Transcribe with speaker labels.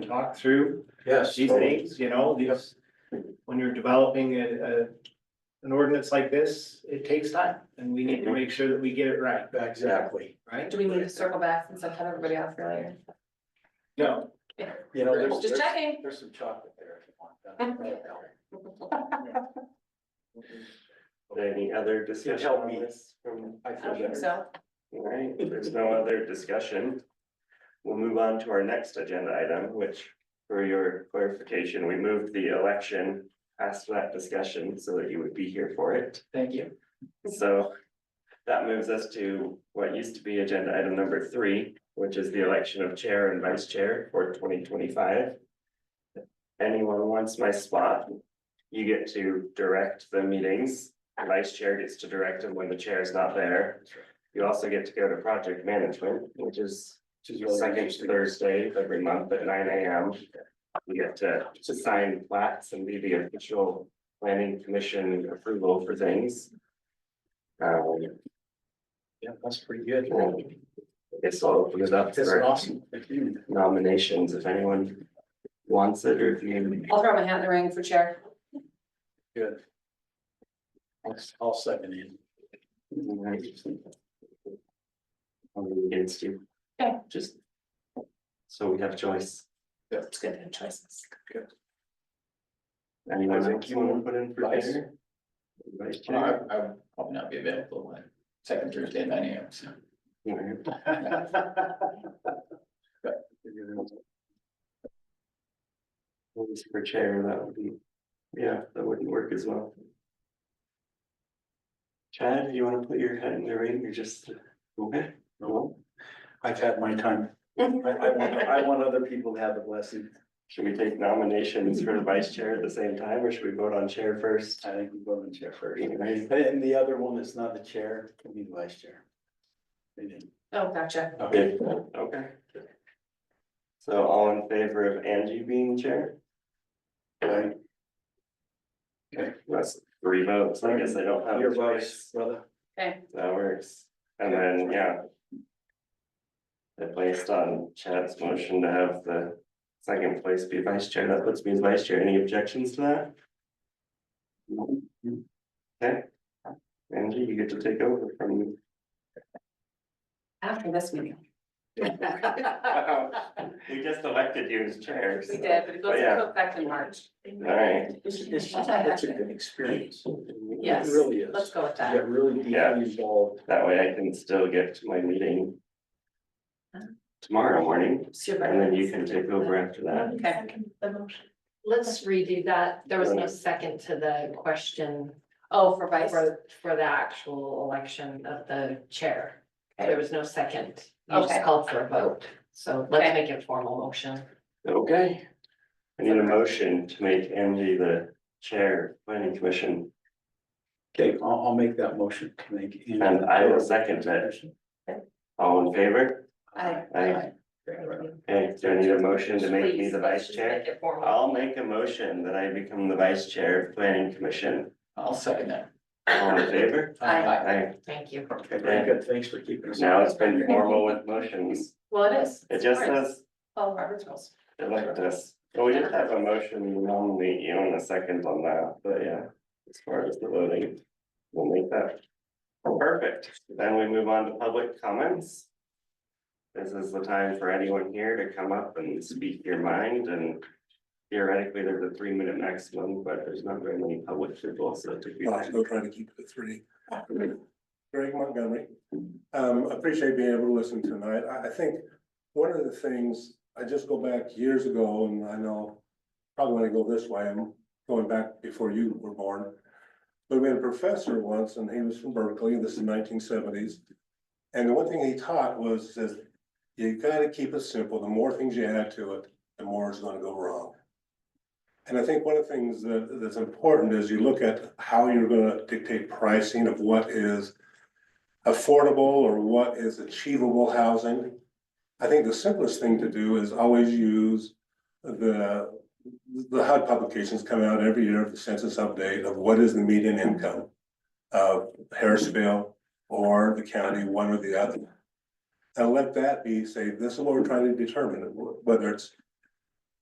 Speaker 1: talk through
Speaker 2: Yes.
Speaker 1: these things, you know, these, when you're developing a, a. An ordinance like this, it takes time and we need to make sure that we get it right,
Speaker 2: Exactly.
Speaker 1: right?
Speaker 3: Do we need to circle back since I've had everybody else earlier?
Speaker 1: No,
Speaker 2: You know, there's.
Speaker 3: Just
Speaker 2: there's-
Speaker 3: checking.
Speaker 2: There's some chocolate there if you want that.
Speaker 4: Any other
Speaker 2: It
Speaker 4: discussion
Speaker 2: helped
Speaker 4: on
Speaker 2: me.
Speaker 4: this? from-
Speaker 2: I
Speaker 3: I don't
Speaker 2: feel
Speaker 3: think
Speaker 2: better.
Speaker 3: so.
Speaker 4: All right, if there's no other discussion. We'll move on to our next agenda item, which for your clarification, we moved the election past that discussion so that you would be here for it.
Speaker 1: thank you.
Speaker 4: So that moves us to what used to be agenda item number three, which is the election of chair and vice chair for twenty twenty-five. Anyone wants my spot, you get to direct the meetings. The Vice chair gets to direct them when the chair is not there. You also get to go to project management, which is
Speaker 2: Which is really
Speaker 4: second
Speaker 2: interesting.
Speaker 4: Thursday of every month at nine AM. We get to, to sign plats and be the official planning commission approval for things. Um,
Speaker 2: Yeah, that's pretty good.
Speaker 4: and I guess I'll open it up
Speaker 2: This is
Speaker 4: for
Speaker 2: awesome. Thank you.
Speaker 4: nominations if anyone wants it or if you.
Speaker 3: I'll throw my hat in the ring for chair.
Speaker 2: Good. I'll- I'll second it.
Speaker 4: I'm against you.
Speaker 3: Okay.
Speaker 4: Just. So we have choice.
Speaker 3: It's good to have choices.
Speaker 4: Anyone
Speaker 2: I think
Speaker 4: else you want to put in for
Speaker 2: Vice.
Speaker 4: chair? Vice
Speaker 5: Well,
Speaker 4: chair?
Speaker 5: I, I would probably not be available when, second Thursday at nine AM, so.
Speaker 4: Yeah. One's per chair, that would be, yeah, that wouldn't work as well. Chad, you wanna put your head in the ring, you're just, okay,
Speaker 2: No, I've had my time. I, I want, I want other people to have the blessing.
Speaker 4: should we take nominations for the vice chair at the same time, or should we vote on chair first?
Speaker 2: I think we go in chair first.
Speaker 4: Anyways.
Speaker 2: And the other one is not the chair, it can be the vice chair. They didn't-
Speaker 3: Oh, gotcha.
Speaker 2: Okay,
Speaker 4: Okay, okay. So all in favor of Angie being chair?
Speaker 2: Right.
Speaker 4: That's three votes, I guess I don't have
Speaker 2: Your
Speaker 4: a
Speaker 2: vice,
Speaker 4: choice,
Speaker 2: brother.
Speaker 3: Okay,
Speaker 4: that works, and then, yeah. I placed on Chad's motion to have the second place be vice chair, that puts me as vice chair, any objections to that? Okay, Angie, you get to take over from me.
Speaker 3: after this meeting. We did,
Speaker 4: We just elected you as chair. so-
Speaker 3: but it goes
Speaker 4: But Oh, yeah.
Speaker 3: into effect in March.
Speaker 4: Alright,
Speaker 2: It's, it's, it's a good experience.
Speaker 3: Yes,
Speaker 2: It really is.
Speaker 3: Let's go with
Speaker 2: You Get
Speaker 3: that.
Speaker 2: really
Speaker 4: Yeah.
Speaker 2: deeply involved.
Speaker 4: that way I can still get to my meeting.
Speaker 3: Huh?
Speaker 4: Tomorrow morning,
Speaker 3: Super.
Speaker 4: and then you can take over after that.
Speaker 3: Okay.
Speaker 6: Let's redo that. There was no second to the question
Speaker 3: Oh, for vice.
Speaker 6: for, for the actual election of the chair. There was no second. You
Speaker 3: Okay.
Speaker 6: just called for a vote. So let's
Speaker 3: Okay.
Speaker 6: make it a formal motion.
Speaker 4: Okay. I need a motion to make Angie the chair of planning commission,
Speaker 2: Okay, I'll, I'll make that motion to make. Andy-
Speaker 4: And I will second it. all in favor?
Speaker 3: Aye.
Speaker 4: Aye.
Speaker 2: Okay, right.
Speaker 4: Okay, do I need a motion to make me the
Speaker 6: Please, let's
Speaker 4: vice
Speaker 6: just
Speaker 4: chair?
Speaker 6: Make it formal.
Speaker 4: I'll make a motion that I become the vice chair of planning commission,
Speaker 5: I'll second that.
Speaker 4: all in favor?
Speaker 3: Aye.
Speaker 4: Aye.
Speaker 6: Thank you.
Speaker 2: Okay, very good. Thanks for keeping us.
Speaker 4: now it's been formal with motions,
Speaker 3: Well, it is.
Speaker 4: it just
Speaker 3: All right.
Speaker 4: says
Speaker 3: Follow Oh, Robert's rules.
Speaker 4: elect us. Well, we did have a motion nominate you in a second on that, but yeah, as far as the voting, we'll make that. Perfect, then we move on to public comments. This is the time for anyone here to come up and speak your mind and theoretically, there's a three minute maximum, but there's not very many public people, so to be.
Speaker 7: I'll still trying to keep it at three. Greg Montgomery, um, appreciate being able to listen tonight. I, I think one of the things, I just go back years ago and I know probably when I go this way, I'm going back before you were born. But we had a professor once and he was from Berkeley, this is nineteen seventies. And the one thing he taught was that you gotta keep it simple. The more things you add to it, the more it's gonna go wrong. And I think one of the things that, that's important is you look at how you're gonna dictate pricing of what is affordable or what is achievable housing. I think the simplest thing to do is always use the, the HUD publications come out every year, the census update of what is the median income of Harrisville or the county, one or the other. And let that be, say, this is what we're trying to determine, whether it's